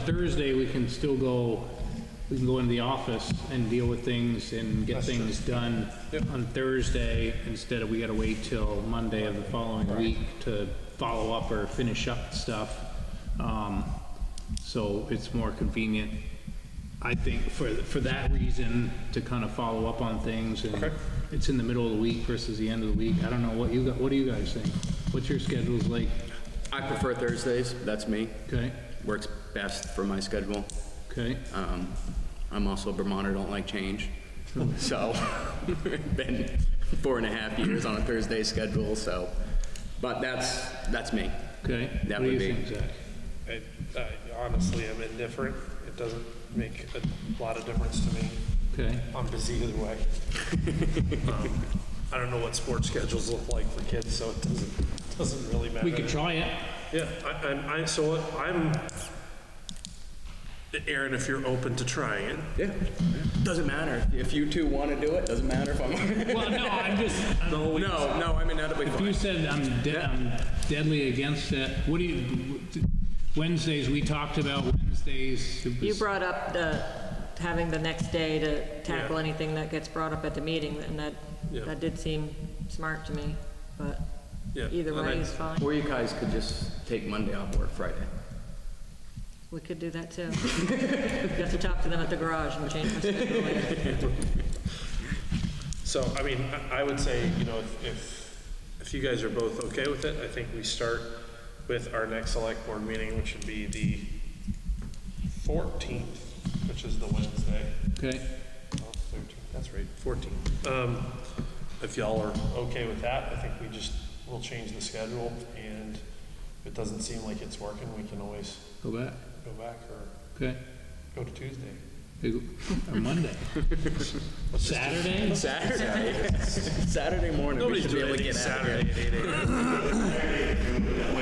Thursday, we can still go, we can go into the office and deal with things and get things done on Thursday instead of we gotta wait till Monday of the following week to follow up or finish up stuff. Um, so it's more convenient, I think, for, for that reason, to kind of follow up on things and it's in the middle of the week versus the end of the week. I don't know what you, got- what do you guys think? What's your schedules like? I prefer Thursdays, that's me. Okay, Works best for my schedule. okay. Um, I'm also a Vermonter, don't like change. So, been four and a half years on a Thursday schedule, so, but that's, that's me. Okay, what That do you would be- think, Zach? I, I honestly am indifferent. It doesn't make a lot of difference to me. Okay, I'm busy either way. Um, I don't know what sports schedules look like for kids, so it doesn't, doesn't really matter. we could try it. Yeah, I, I'm, I, so what- I'm, Aaron, if you're open to trying it, Yeah. Doesn't matter. If you two want to do it, doesn't matter if I'm. Well, no, I'm just, I'm- No, no, I mean, that'll be you fine. said I'm de- I'm deadly against it. What do you, Wednesdays, we talked about Wednesdays. it You was- brought up the, having the next day to tackle Yeah. anything that gets brought up at the meeting, and that, Yeah. that did seem smart to me, but Yeah, either and I- way is fine. Or you guys could just take Monday off work Friday. We could do that too. You have to talk to them at the garage and change my schedule later. So, I mean, I I would say, you know, if- if, if you guys are both okay with it, I think we start with our next select board meeting, which would be the 14th, which is the Wednesday. Okay, Oh, 13th, That's right, 14th. Um, If y'all are okay with that, I think we just, we'll change the schedule, and if it doesn't seem like it's working, we can always go back, go back or okay. go to Tuesday. Hey, go- Or Monday. Saturday? Saturday. Saturday morning, we Nobody's should be doing able to anything get out of here. Saturday at 8 a.m.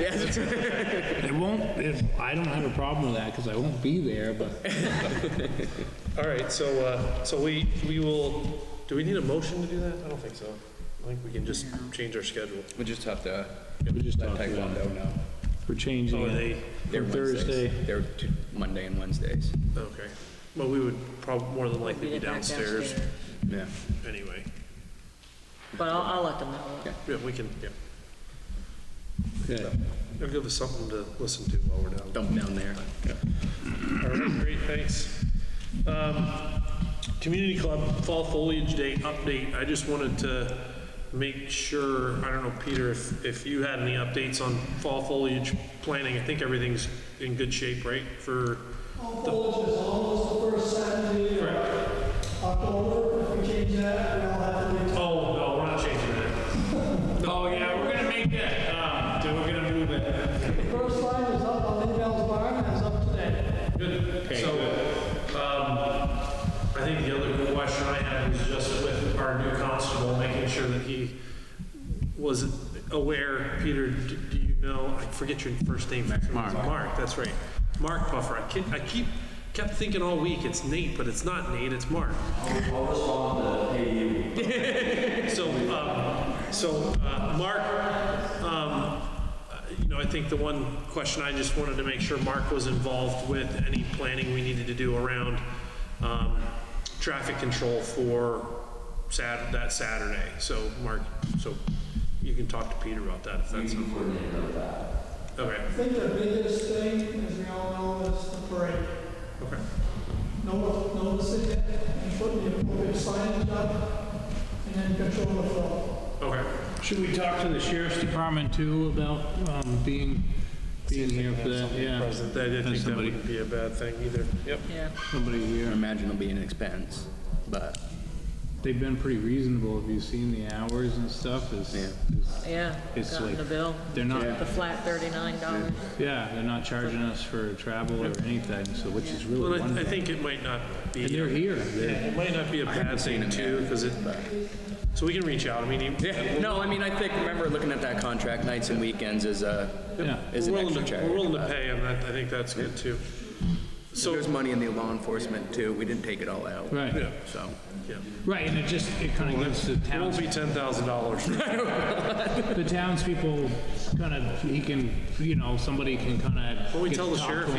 Yes. It won't, it- I don't have a problem with that because I won't be there, but All right, so, uh, so we, we will, do we need a motion to do that? I don't think so. I think we can just change our schedule. We just have to we just let talked about it. Taekwondo know. We're changing Oh, it they- They're from Wednesdays. Thursday. They're t- Monday and Wednesdays. Okay. Well, we would probably, more than likely We be did back downstairs downstairs. Yeah. anyway. But I'll, I'll let them know. Okay. Yeah, we can, yeah. Okay, I'll give us something to listen to while we're down. Dump down there. All right, great, thanks. Um, Community Club Fall Foliage Day update, I just wanted to make sure, I don't know, Peter, if, if you had any updates on fall foliage planning, I think everything's in good shape, right, for? Bulge is almost the first Saturday of October, if we change that, we all have to wait Oh, no, we're not changing that. Oh, yeah, we're gonna make that, um, then we're gonna move it. till. The first line is up on Lindell's Barn, that's up today. Good, so, um, I think the other question I had was just with our new constable, making sure that he was aware, Peter, d- do you know, I forget your first name. Mark. Mark, that's right. Mark Puffer, I keep, I keep, kept thinking all week it's Nate, but it's not Nate, it's Mark. So, um, so, uh, Mark, um, uh, you know, I think the one question I just wanted to make sure Mark was involved with any planning we needed to do around, um, traffic control for Sat, that Saturday. So, Mark, so you can talk to Peter about that if that's. You Okay, I think the biggest thing, as we all know, is the parade. okay. Notice, notice it, yet, and put the appropriate signage up, and then control the flow. Okay. Should we talk to the sheriff's department too about um, being, being here for that? Yeah, President, I didn't think that somebody- wouldn't be a bad thing either. Yep. Yeah. somebody I here. imagine it'll be an expense, but They've been pretty reasonable. Have you seen the hours and stuff? It's, it's- Yeah, It's gotten like- the bill, they're not, the flat thirty-nine dollars. yeah, they're not charging us for travel or anything, so, which is Well, really I, I wonderful. think it might not be. And they're here. They're- It might not be a bad thing too, because it, so we can reach out, I mean, he- yeah. No, I mean I think remember looking at that contract nights and weekends is a Yeah. is we're an willing extra to, charge. we're willing to pay him, that, I think that's good too. So So, there's money in the law enforcement too. We didn't take it all out. Right, yeah, So yeah. right, and it just, it kind of gives the It won't towns, be ten thousand dollars. the townspeople kind of, he can, you know, somebody can kind of. Well, we tell the sheriff